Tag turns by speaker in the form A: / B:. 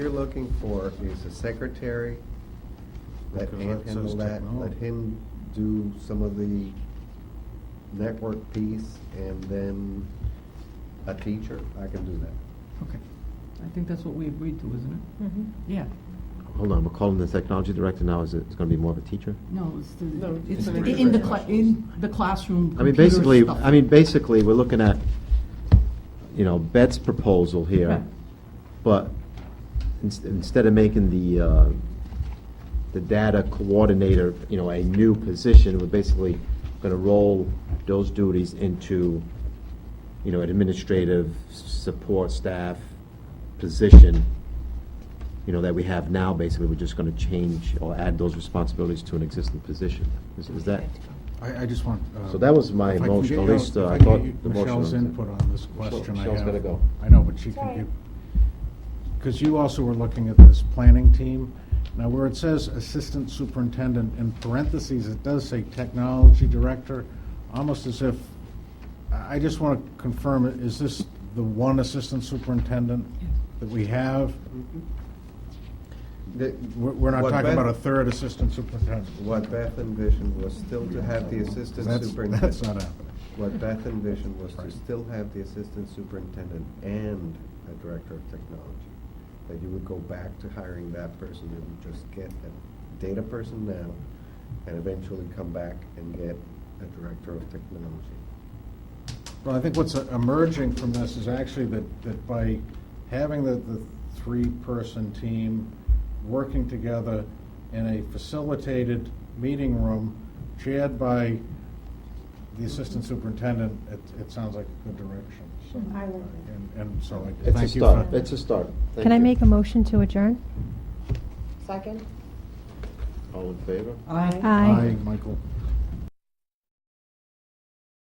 A: you're looking for is a secretary. Let
B: Because
A: Ann
B: that says
A: handle that, let
B: technology.
A: him do some of the network piece, and then a teacher, I can do that.
C: Okay. I think that's what we agreed to, isn't it? Yeah.
D: Hold on, we're calling the technology director now, is it, it's gonna be more of a teacher?
C: No, it's the,
A: No,
C: it's
A: it's
C: the-
A: an
C: in the,
A: extra-
C: cla- in the classroom,
D: I mean,
C: computer
D: basically,
C: stuff.
D: I mean, basically, we're looking at, you know, Bet's proposal
C: Right.
D: here, but ins- instead of making the, uh, the data coordinator, you know, a new position, we're basically gonna roll those duties into, you know, an administrative support staff position, you know, that we have now, basically, we're just gonna change or add those responsibilities to an existing position. Is is that?
B: I, I just want. uh,
D: So that was my
B: if I can
D: motion,
B: get
D: at
B: your-
D: least, uh,
B: if
D: I
B: can
D: thought
B: get you-
D: the motion
B: Michelle's
D: was-
B: input on this question I have.
D: Michelle's gotta go.
B: I know, but she can
E: Sorry.
B: give, because you also were looking at this planning team. Now, where it says assistant superintendent, in parentheses, it does say technology director, almost as if, I I just want to confirm, is this the one assistant superintendent that we have?
A: The-
B: We're, we're not
A: what
B: talking about a
A: Beth-
B: third assistant superintendent.
A: What Beth envisioned was still to have the assistant
B: That's-
A: superintendent.
B: That's not happening.
A: What Beth envisioned was to
B: Right.
A: still have the assistant superintendent and a director of technology. That you would go back to hiring that person, you would just get a data person now, and eventually come back and get a director of technology.
B: Well, I think what's emerging from this is actually that, that by having the, the three-person team working together in a facilitated meeting room chaired by the assistant superintendent, it, it sounds like a good direction, so.
E: I like it.
B: And, and so I
D: It's a
B: thank you for.
D: start, it's a start. Thank
F: Can I
D: you.
F: make a motion to adjourn?
E: Second?
D: All in favor?
C: Aye.
B: Aye, Michael.